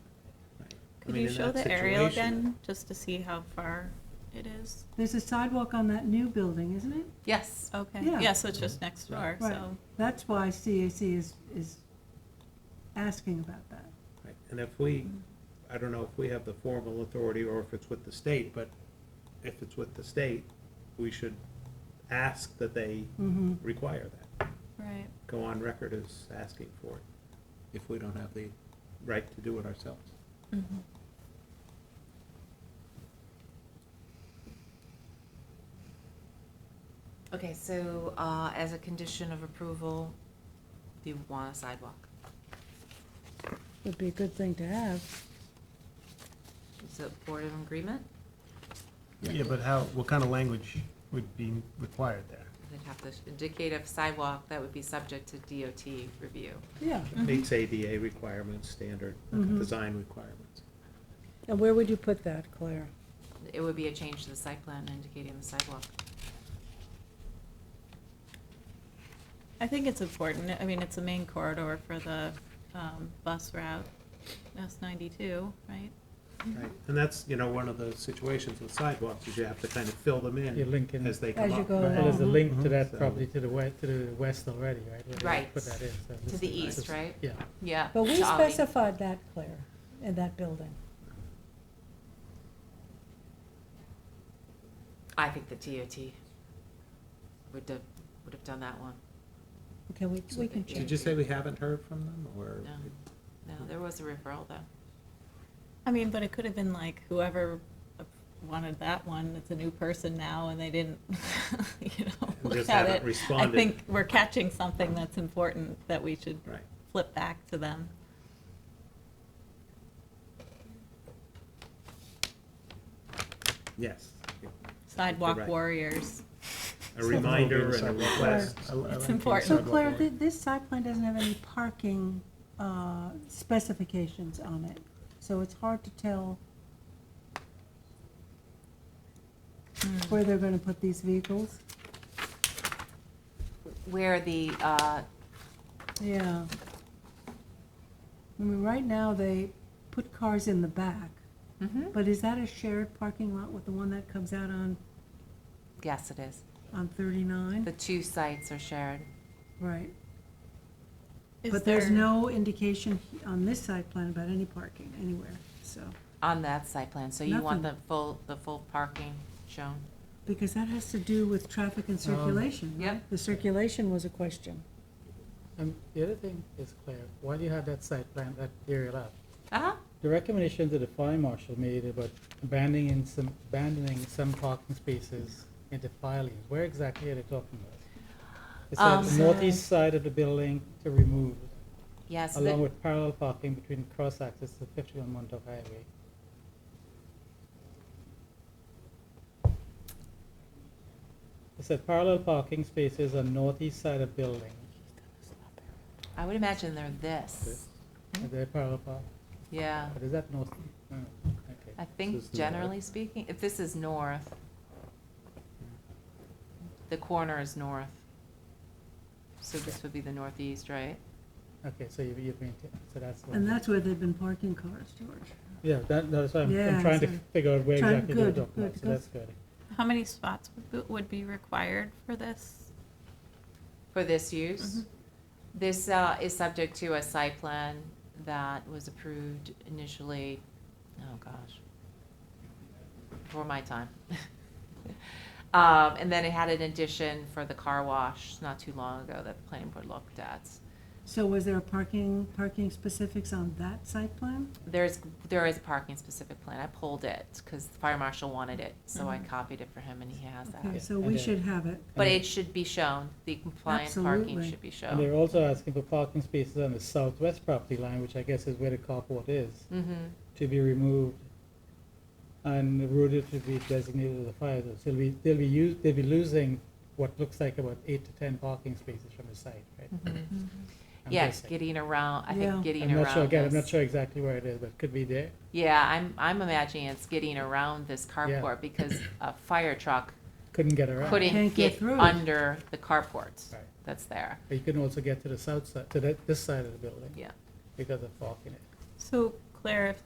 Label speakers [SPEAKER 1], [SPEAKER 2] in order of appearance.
[SPEAKER 1] Could
[SPEAKER 2] mean,
[SPEAKER 1] you
[SPEAKER 2] in
[SPEAKER 1] show
[SPEAKER 2] that
[SPEAKER 1] the aerial
[SPEAKER 2] situation-
[SPEAKER 1] again, just to see how far it is?
[SPEAKER 3] There's a sidewalk on that new building, isn't it?
[SPEAKER 4] Yes.
[SPEAKER 1] Okay,
[SPEAKER 3] Yeah.
[SPEAKER 1] yeah, so it's just next door,
[SPEAKER 3] Right.
[SPEAKER 1] so,
[SPEAKER 3] That's why CAC is, is asking about that.
[SPEAKER 2] Right, And if we, I don't know if we have the formal authority or if it's with the state, but if it's with the state, we should ask that they
[SPEAKER 3] Mhm.
[SPEAKER 2] require that,
[SPEAKER 1] right.
[SPEAKER 2] go on record as asking for it, if we don't have the right to do it ourselves.
[SPEAKER 4] Okay, so uh, as a condition of approval, do you want a sidewalk?
[SPEAKER 5] Would be a good thing to have.
[SPEAKER 4] Is the board in agreement?
[SPEAKER 6] Yeah, but how, what kind of language would be required there?
[SPEAKER 4] They'd have to indicate a sidewalk that would be subject to DOT review.
[SPEAKER 3] Yeah.
[SPEAKER 2] Meets ADA requirements, standard
[SPEAKER 3] Mhm.
[SPEAKER 2] design requirements.
[SPEAKER 5] And where would you put that, Claire?
[SPEAKER 4] It would be a change to the site plan indicating the sidewalk.
[SPEAKER 1] I think it's important, I mean, it's a main corridor for the um, bus route, S ninety-two, right?
[SPEAKER 2] Right, and that's, you know, one of the situations with sidewalks, is you have to kind of fill them
[SPEAKER 7] You
[SPEAKER 2] in
[SPEAKER 7] link in,
[SPEAKER 2] as they come
[SPEAKER 5] As you
[SPEAKER 2] up.
[SPEAKER 5] go
[SPEAKER 7] Right, there's a
[SPEAKER 5] along.
[SPEAKER 7] link to
[SPEAKER 2] So-
[SPEAKER 7] that property to the west, to the west already, right? where they
[SPEAKER 4] Right.
[SPEAKER 7] Put that in. so
[SPEAKER 4] To
[SPEAKER 7] this
[SPEAKER 4] the
[SPEAKER 7] is-
[SPEAKER 4] east, right?
[SPEAKER 7] Yeah.
[SPEAKER 4] Yeah.
[SPEAKER 5] But we
[SPEAKER 4] to Ollie.
[SPEAKER 5] specified that, Claire, in that building.
[SPEAKER 4] I think the DOT would have, would have done that one.
[SPEAKER 5] Okay, we, we can
[SPEAKER 4] Yeah.
[SPEAKER 5] check.
[SPEAKER 2] Did you say we haven't heard from them, or?
[SPEAKER 4] No, no, there was a referral though.
[SPEAKER 1] I mean, but it could have been like whoever wanted that one, it's a new person now, and they didn't, you know,
[SPEAKER 2] And
[SPEAKER 1] look
[SPEAKER 2] just
[SPEAKER 1] at
[SPEAKER 2] haven't
[SPEAKER 1] it. I
[SPEAKER 2] responded.
[SPEAKER 1] think we're catching something that's important that we should
[SPEAKER 2] Right.
[SPEAKER 1] flip back to them.
[SPEAKER 2] Yes.
[SPEAKER 1] Sidewalk
[SPEAKER 2] Correct.
[SPEAKER 1] warriors.
[SPEAKER 2] A reminder and a request.
[SPEAKER 6] I- I like
[SPEAKER 1] It's
[SPEAKER 6] the
[SPEAKER 1] important.
[SPEAKER 3] So
[SPEAKER 6] sidewalk
[SPEAKER 3] Claire,
[SPEAKER 6] one.
[SPEAKER 3] thi- this site plan doesn't have any parking uh, specifications on it, so it's hard to tell where they're gonna put these vehicles.
[SPEAKER 4] Where the, uh,
[SPEAKER 3] Yeah. I mean, right now, they put cars in the back, but is that a shared parking lot with the one that comes out on,
[SPEAKER 4] yes, it is.
[SPEAKER 3] on
[SPEAKER 4] The
[SPEAKER 3] thirty-nine?
[SPEAKER 4] two sites are shared.
[SPEAKER 3] Right,
[SPEAKER 1] Is
[SPEAKER 3] but there's
[SPEAKER 1] there-
[SPEAKER 3] no indication on this site plan about any parking anywhere, so,
[SPEAKER 4] On that site plan, so you want the
[SPEAKER 3] Nothing.
[SPEAKER 4] full, the full parking shown?
[SPEAKER 3] because that has to do with traffic and circulation, right?
[SPEAKER 4] Yep.
[SPEAKER 5] The circulation was a question.
[SPEAKER 7] And the other thing is, Claire, why do you have that site plan, that aerial up?
[SPEAKER 4] Uh-huh,
[SPEAKER 7] The recommendation that the fire marshal made about abandoning some, abandoning some parking spaces into fire lanes, where exactly are they talking about? It's on
[SPEAKER 4] Um,
[SPEAKER 7] the northeast side of the building to remove,
[SPEAKER 4] yes. the-
[SPEAKER 7] along with parallel parking between cross access to fifty-one Montauk Highway. It said parallel parking spaces on northeast side of building,
[SPEAKER 4] I would imagine they're this.
[SPEAKER 3] Hmm?
[SPEAKER 7] Are they parallel park,
[SPEAKER 3] Uh.
[SPEAKER 4] Yeah,
[SPEAKER 7] but is that north? oh, okay.
[SPEAKER 4] I
[SPEAKER 2] This is
[SPEAKER 4] think
[SPEAKER 2] north.
[SPEAKER 4] generally speaking, if this is north, the corner is north. So this would be the northeast, right?
[SPEAKER 7] Okay, so you, you've been, so that's. what-
[SPEAKER 3] Uh. And that's where they've been parking cars, George.
[SPEAKER 7] Yeah, that, that's what I'm,
[SPEAKER 3] Yeah,
[SPEAKER 7] I'm trying to
[SPEAKER 3] so-
[SPEAKER 7] figure out where
[SPEAKER 3] trying-
[SPEAKER 7] exactly they're
[SPEAKER 3] good,
[SPEAKER 7] talking about,
[SPEAKER 3] good,
[SPEAKER 7] so
[SPEAKER 3] good.
[SPEAKER 7] that's good.
[SPEAKER 1] How many spots would be- would be required for this?
[SPEAKER 4] For this
[SPEAKER 3] Mm-hmm.
[SPEAKER 4] use? This uh, is subject to a site plan that was approved initially, oh gosh, before my time. Um, And then it had an addition for the car wash not too long ago that the planning board looked at.
[SPEAKER 3] So was there a parking, parking specifics on that site plan?
[SPEAKER 4] There's, there is a parking specific plan. I pulled it because the fire marshal wanted it, so I copied it for him and he has
[SPEAKER 3] Mm-hmm. Okay,
[SPEAKER 4] that.
[SPEAKER 3] so we
[SPEAKER 7] Okay.
[SPEAKER 3] should have it.
[SPEAKER 4] But it should be shown, the compliant parking
[SPEAKER 3] Absolutely.
[SPEAKER 4] should be
[SPEAKER 7] And they're
[SPEAKER 4] shown.
[SPEAKER 7] also asking for parking spaces on the southwest property line, which I guess is where the carport is,
[SPEAKER 4] Mhm.
[SPEAKER 7] to be removed. And the road is to be designated as a fire zone, so they'll be, they'll be us, they'll be losing what looks like about eight to ten parking spaces from the site, right?
[SPEAKER 3] Mm-hmm.
[SPEAKER 7] I'm
[SPEAKER 4] Mm-hmm. Yes,
[SPEAKER 7] guessing.
[SPEAKER 4] getting around, I
[SPEAKER 3] Yeah.
[SPEAKER 4] think getting around
[SPEAKER 7] I'm not sure, again, I'm
[SPEAKER 4] this.
[SPEAKER 7] not sure exactly where it is, but it could be there.
[SPEAKER 4] Yeah, I'm, I'm imagining it's getting around this carport because a fire truck
[SPEAKER 7] Couldn't get around.
[SPEAKER 4] couldn't
[SPEAKER 3] Can't get
[SPEAKER 4] get
[SPEAKER 3] through.
[SPEAKER 4] under the carport
[SPEAKER 7] Right.
[SPEAKER 4] that's there,
[SPEAKER 7] But you couldn't also get to the south side, to that, this side of the building
[SPEAKER 4] yeah.
[SPEAKER 7] because of parking.
[SPEAKER 1] So Claire, if